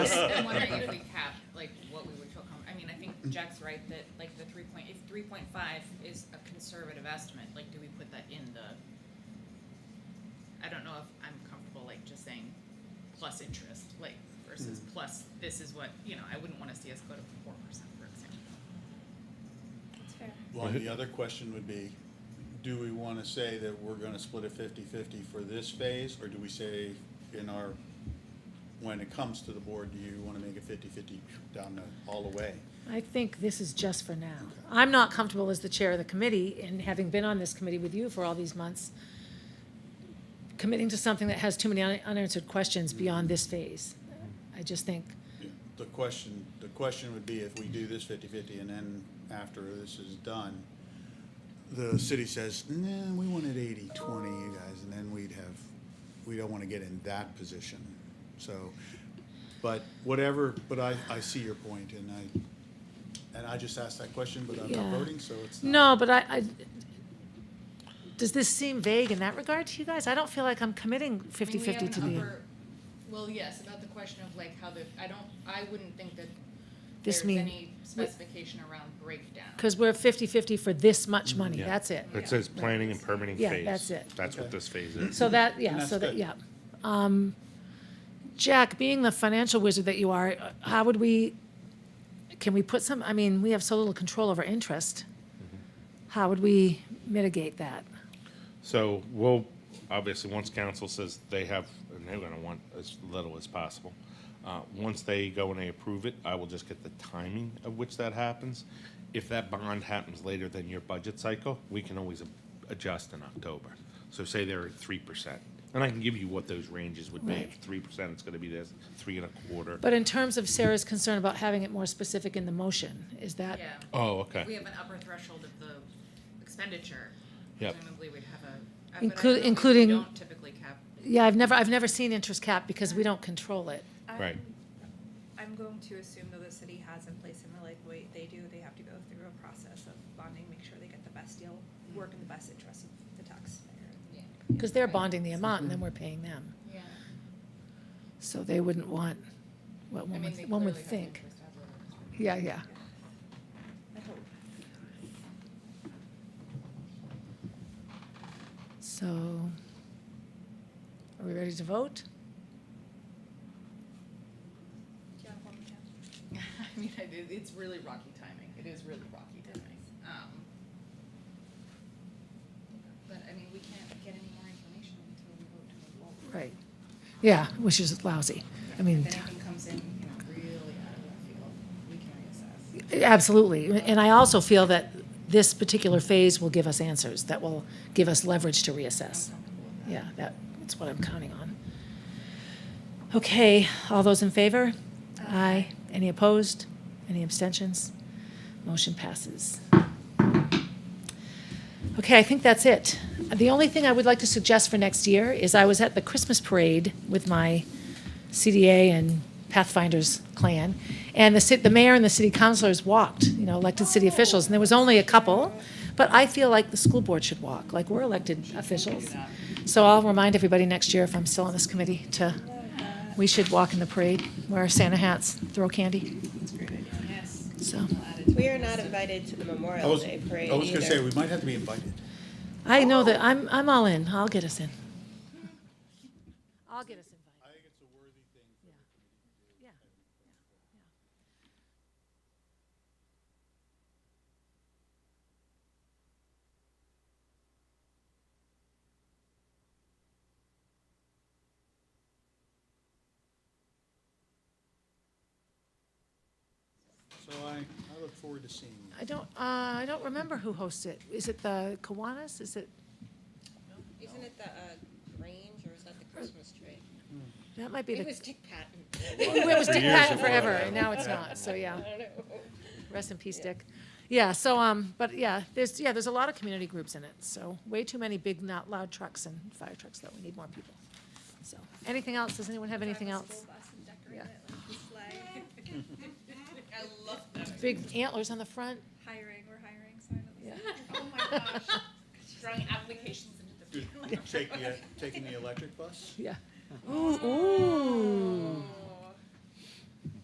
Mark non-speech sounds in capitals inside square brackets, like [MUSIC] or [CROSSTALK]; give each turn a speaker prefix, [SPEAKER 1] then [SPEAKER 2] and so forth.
[SPEAKER 1] [LAUGHS]
[SPEAKER 2] wondering if we cap, like, what we would feel comfortable, I mean, I think Jack's right that, like, the three point, if three point five is a conservative estimate, like, do we put that in the? I don't know if I'm comfortable, like, just saying plus interest, like, versus plus, this is what, you know, I wouldn't wanna see us go to four percent, for example.
[SPEAKER 3] That's fair.
[SPEAKER 4] Well, the other question would be, do we wanna say that we're gonna split it fifty-fifty for this phase, or do we say in our, when it comes to the board, do you wanna make it fifty-fifty down the, all the way?
[SPEAKER 1] I think this is just for now. I'm not comfortable as the chair of the committee, and having been on this committee with you for all these months, committing to something that has too many un- unanswered questions beyond this phase. I just think,
[SPEAKER 4] The question, the question would be if we do this fifty-fifty and then after this is done, the city says, nah, we wanted eighty-twenty, you guys, and then we'd have, we don't wanna get in that position. So, but whatever, but I, I see your point and I, and I just asked that question, but I'm not
[SPEAKER 1] Yeah.
[SPEAKER 4] voting, so it's not.
[SPEAKER 1] no, but I, I, does this seem vague in that regard to you guys? I don't feel like I'm committing fifty-fifty to
[SPEAKER 2] I mean, we
[SPEAKER 1] the,
[SPEAKER 2] have an upper, well, yes, about the question of like how the, I don't, I wouldn't think that
[SPEAKER 1] This
[SPEAKER 2] there's
[SPEAKER 1] mean-
[SPEAKER 2] any specification around breakdown.
[SPEAKER 1] because we're fifty-fifty for this much money,
[SPEAKER 5] Yeah.
[SPEAKER 1] that's it.
[SPEAKER 5] It says planning and permitting
[SPEAKER 1] Yeah,
[SPEAKER 5] phase.
[SPEAKER 1] that's it.
[SPEAKER 5] That's what
[SPEAKER 4] Okay.
[SPEAKER 5] this phase is.
[SPEAKER 1] So that, yeah,
[SPEAKER 4] that's
[SPEAKER 1] so that,
[SPEAKER 4] good.
[SPEAKER 1] yeah. Um, Jack, being the financial wizard that you are, uh, how would we, can we put some, I mean, we have so little control over interest. How would we mitigate that?
[SPEAKER 5] So we'll, obviously, once council says they have, and they're gonna want as little as possible. Uh, once they go and they approve it, I will just get the timing of which that happens. If that bond happens later than your budget cycle, we can always a- adjust in October. So say they're at three percent, and I can give you what those ranges would be. If
[SPEAKER 1] Right.
[SPEAKER 5] three percent, it's gonna be this, three and a quarter.
[SPEAKER 1] But in terms of Sarah's concern about having it more specific in the motion, is that?
[SPEAKER 2] Yeah.
[SPEAKER 5] Oh, okay.
[SPEAKER 2] We have an upper threshold of the expenditure.
[SPEAKER 5] Yep.
[SPEAKER 2] Presumably we'd have a. uh, but I
[SPEAKER 1] Inclu-
[SPEAKER 2] don't know if we
[SPEAKER 1] including-
[SPEAKER 2] don't typically cap.
[SPEAKER 1] Yeah, I've never, I've never seen interest cap because we don't control it.
[SPEAKER 5] Right.
[SPEAKER 3] I'm- I'm going to assume though the city has in place and they're like, wait, they do, they have to go through a process of bonding, make sure they get the best deal, work in the best interest of the taxpayer.
[SPEAKER 1] Because they're bonding the amount and then we're paying them.
[SPEAKER 2] Yeah.
[SPEAKER 1] So they wouldn't want, what
[SPEAKER 2] I
[SPEAKER 1] one
[SPEAKER 2] mean,
[SPEAKER 1] would,
[SPEAKER 2] they
[SPEAKER 1] one
[SPEAKER 2] clearly
[SPEAKER 1] would
[SPEAKER 2] have
[SPEAKER 1] think.
[SPEAKER 2] interest out there.
[SPEAKER 1] Yeah, yeah.
[SPEAKER 3] I hope.
[SPEAKER 1] So, are we ready to vote?
[SPEAKER 3] Do you have one, Jen?
[SPEAKER 2] [LAUGHS] I mean, I did, it's really rocky timing. It is really rocky timing. Um, But I mean, we can't get any more information until we vote to move forward.
[SPEAKER 1] Right. Yeah, which is lousy. I mean,
[SPEAKER 2] If anything comes in, you know, really out of left field, we can reassess.
[SPEAKER 1] absolutely. And I also feel that this particular phase will give us answers, that will give us leverage to reassess.
[SPEAKER 2] I'm comfortable with that.
[SPEAKER 1] Yeah, that, that's what I'm counting on. Okay, all those in favor? Aye. Any opposed? Any abstentions? Motion passes. Okay, I think that's it. The only thing I would like to suggest for next year is I was at the Christmas parade with my CDA and Pathfinders clan, and the cit, the mayor and the city councilors walked, you know, elected city officials, and there was only a couple. But I feel like the school board should walk, like we're elected officials. So I'll remind everybody next year, if I'm still on this committee, to, we should walk in the parade, wear our Santa hats, throw candy,
[SPEAKER 6] That's a great idea.
[SPEAKER 2] Yes.
[SPEAKER 1] so.
[SPEAKER 2] we'll add it to
[SPEAKER 6] We
[SPEAKER 2] the
[SPEAKER 6] are not
[SPEAKER 2] list.
[SPEAKER 6] invited to the
[SPEAKER 4] I
[SPEAKER 6] Memorial
[SPEAKER 4] was,
[SPEAKER 6] Day parade
[SPEAKER 4] I was gonna say,
[SPEAKER 6] either.
[SPEAKER 4] we might have to be invited.
[SPEAKER 1] I know that, I'm, I'm all in, I'll get us in. I'll get us invited.
[SPEAKER 4] I think it's a worthy thing
[SPEAKER 1] Yeah.
[SPEAKER 4] So I, I look forward to seeing you.
[SPEAKER 1] I don't, uh, I don't remember who hosts it. Is it the Kiwanis? Is it,
[SPEAKER 6] Isn't it the uh, Grange or is that the Christmas tree?
[SPEAKER 1] that might be
[SPEAKER 6] It
[SPEAKER 1] the,
[SPEAKER 6] was Dick Patton.
[SPEAKER 1] it was Dick
[SPEAKER 5] years
[SPEAKER 1] Patton
[SPEAKER 5] it
[SPEAKER 1] forever,
[SPEAKER 5] was.
[SPEAKER 1] and now it's not, so yeah.
[SPEAKER 6] I don't know.
[SPEAKER 1] Rest in peace, Dick. Yeah, so, um, but yeah, there's, yeah, there's a lot of community groups in it, so way too many big, not loud trucks and fire trucks, though. We need more people. So, anything else? Does anyone have anything
[SPEAKER 3] Drive a
[SPEAKER 1] else?
[SPEAKER 3] school bus and decorate
[SPEAKER 1] Yeah.
[SPEAKER 3] it like with flag. [LAUGHS]
[SPEAKER 2] I love that.
[SPEAKER 1] Big antlers on the front?
[SPEAKER 3] Hiring, we're hiring, sign up. [LAUGHS]
[SPEAKER 1] Yeah.
[SPEAKER 2] Oh my gosh. Throwing applications into the.
[SPEAKER 4] uh, Take the, taking the electric bus?
[SPEAKER 1] Yeah. Ooh, ooh.